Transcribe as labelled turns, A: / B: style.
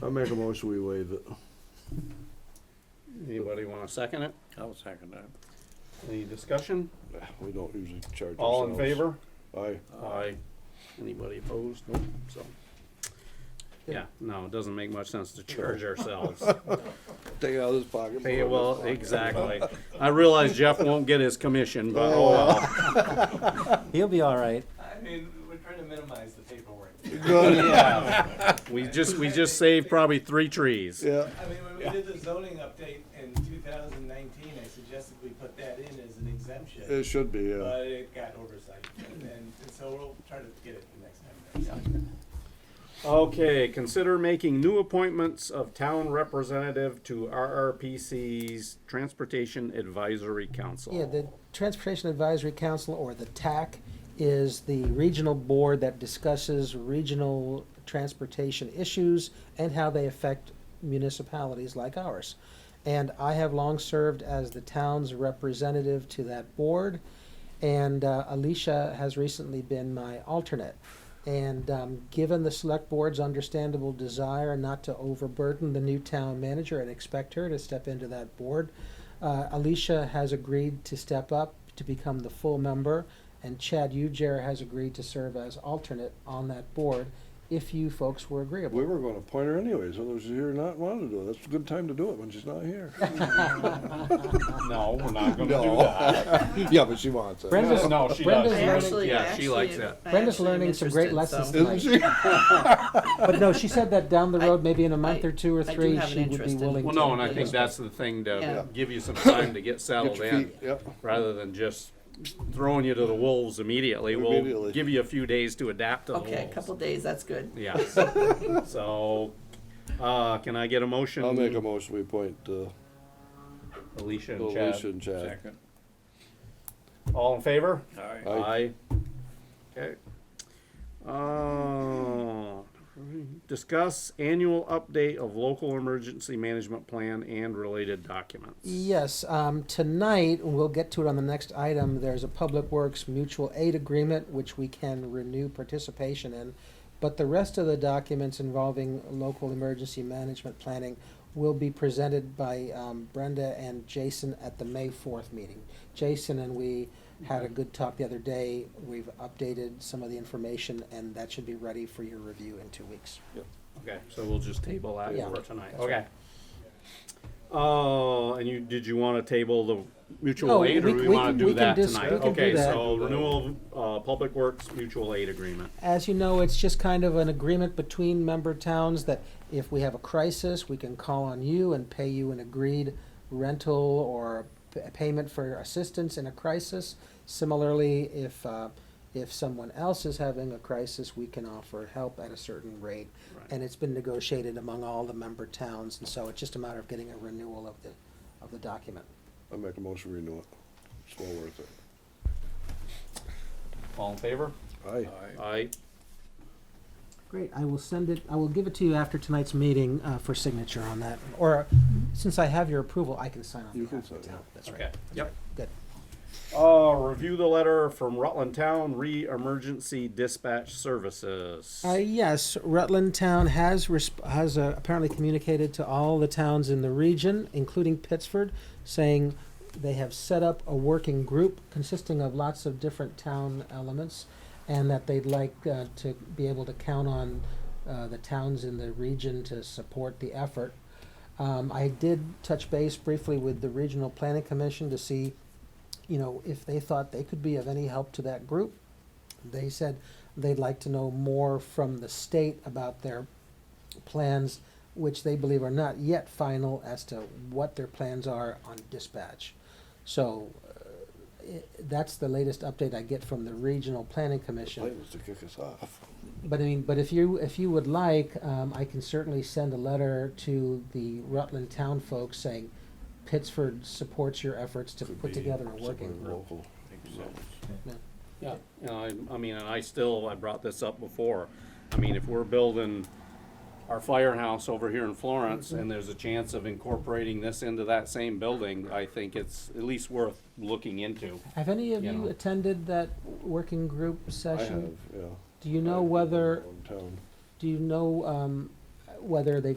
A: I make a motion, we waive it.
B: Anybody wanna second it?
C: I'll second that.
B: Any discussion?
A: We don't usually charge ourselves.
B: All in favor?
A: Aye.
B: Aye. Anybody opposed? Nope, so. Yeah, no, it doesn't make much sense to charge ourselves.
A: Take it out of his pocket.
B: Hey, well, exactly. I realize Jeff won't get his commission, but oh well.
D: He'll be all right.
E: I mean, we're trying to minimize the paperwork.
B: We just, we just saved probably three trees.
A: Yeah,
E: I mean, when we did the zoning update in two thousand nineteen, I suggested we put that in as an exemption,
A: it should be, yeah.
E: but it got oversight, and, and so we'll try to get it the next time.
B: Okay, consider making new appointments of town representative to RRPC's Transportation Advisory Council.
D: Yeah, the Transportation Advisory Council, or the TAC, is the regional board that discusses regional transportation issues and how they affect municipalities like ours. And I have long served as the town's representative to that board, and uh, Alicia has recently been my alternate. And um, given the select board's understandable desire not to overburden the new town manager and expect her to step into that board, uh, Alicia has agreed to step up to become the full member, and Chad Ujair has agreed to serve as alternate on that board if you folks were agreeable.
A: We were gonna appoint her anyways, whether she's here or not, wanted to do it. That's a good time to do it when she's not here.
B: No, we're not gonna do that.
A: No. Yeah, but she wants it.
D: Brenda's,
B: No, she
D: Brenda's
B: does.
F: I
D: learning,
F: actually,
B: Yeah, she
F: I
B: likes
F: actually-
B: that.
F: I
D: Brenda's
F: actually am
D: learning some great
F: interested,
D: lessons
F: so-
A: Isn't she?
D: but no, she said that down the road, maybe in a month
F: I-
D: or two or
F: I do
D: three,
F: have an
D: she would be
F: interest in-
D: willing.
B: Well,
D: to
B: no, and I think
D: participate.
B: that's the thing
F: Yeah.
B: to give you some time to get
A: Get
B: settled
A: your
B: in,
A: feet, yep.
B: rather than just throwing you to the wolves immediately. We'll
A: Immediately.
B: give you a few days to adapt to the wolves.
F: Okay, a couple days, that's good.
B: Yeah, so, uh, can I get a motion?
A: I'll make a motion, we appoint, uh,
B: Alicia and Chad.
A: Alicia and Chad.
C: Second.
B: All in favor?
C: Aye.
A: Aye.
B: Okay. Uh, discuss annual update of local emergency management plan and related documents.
D: Yes, um, tonight, and we'll get to it on the next item, there's a Public Works Mutual Aid Agreement, which we can renew participation in. But the rest of the documents involving local emergency management planning will be presented by, um, Brenda and Jason at the May fourth meeting. Jason and we had a good talk the other day, we've updated some of the information, and that should be ready for your review in two weeks.
B: Okay, so we'll just table that
D: Yeah.
B: for tonight, okay? Uh, and you, did you wanna table the
D: No,
B: mutual aid,
D: Oh, we-
B: or do we
D: we
B: wanna
D: can-
B: do
D: we can
B: that
D: dis-
B: tonight?
D: we can do
B: Okay,
D: that.
B: so renewal of, uh, Public Works Mutual Aid Agreement.
D: As you know, it's just kind of an agreement between member towns that if we have a crisis, we can call on you and pay you an agreed rental or p- payment for assistance in a crisis. Similarly, if, uh, if someone else is having a crisis, we can offer help at a certain rate.
B: Right.
D: And it's been negotiated among all the member towns, and so it's just a matter of getting a renewal of the, of the document.
A: I make a motion, we renew it. It's well worth it.
B: All in favor?
A: Aye.
B: Aye.
D: Great, I will send it, I will give it to you after tonight's meeting uh, for signature on that. Or, since I have your approval, I can sign on
A: You can
D: behalf of the
A: sign,
D: town. That's
B: Okay,
D: right.
B: yep.
D: Good.
B: Uh, review the letter from Rutland Town Re-Emergency Dispatch Services.
D: Uh, yes, Rutland Town has resp- has uh, apparently communicated to all the towns in the region, including Pittsford, saying they have set up a working group consisting of lots of different town elements, and that they'd like uh, to be able to count on uh, the towns in the region to support the effort. Um, I did touch base briefly with the Regional Planning Commission to see, you know, if they thought they could be of any help to that group. They said they'd like to know more from the state about their plans, which they believe are not yet final as to what their plans are on dispatch. So uh, i that's the latest update I get from the Regional Planning Commission.
A: Plan was to kick us off.
D: But I mean, but if you, if you would like, um, I can certainly send a letter to the Rutland town folks saying Pittsford supports your efforts to
A: Could
D: put
A: be
D: together a working
A: Somewhere
D: group.
A: local.
B: Yeah, and Uh, I, I mean, and I still, I brought this up before. I mean, if we're building our firehouse over here in Florence and there's a chance of incorporating this into that same building, I think it's at least worth looking into.
D: Have any of
B: You
D: you
B: know.
D: attended that working group
A: I
D: session?
A: have, yeah.
D: Do you know
A: I've been
D: whether,
A: around Town.
D: do you know, um, whether they've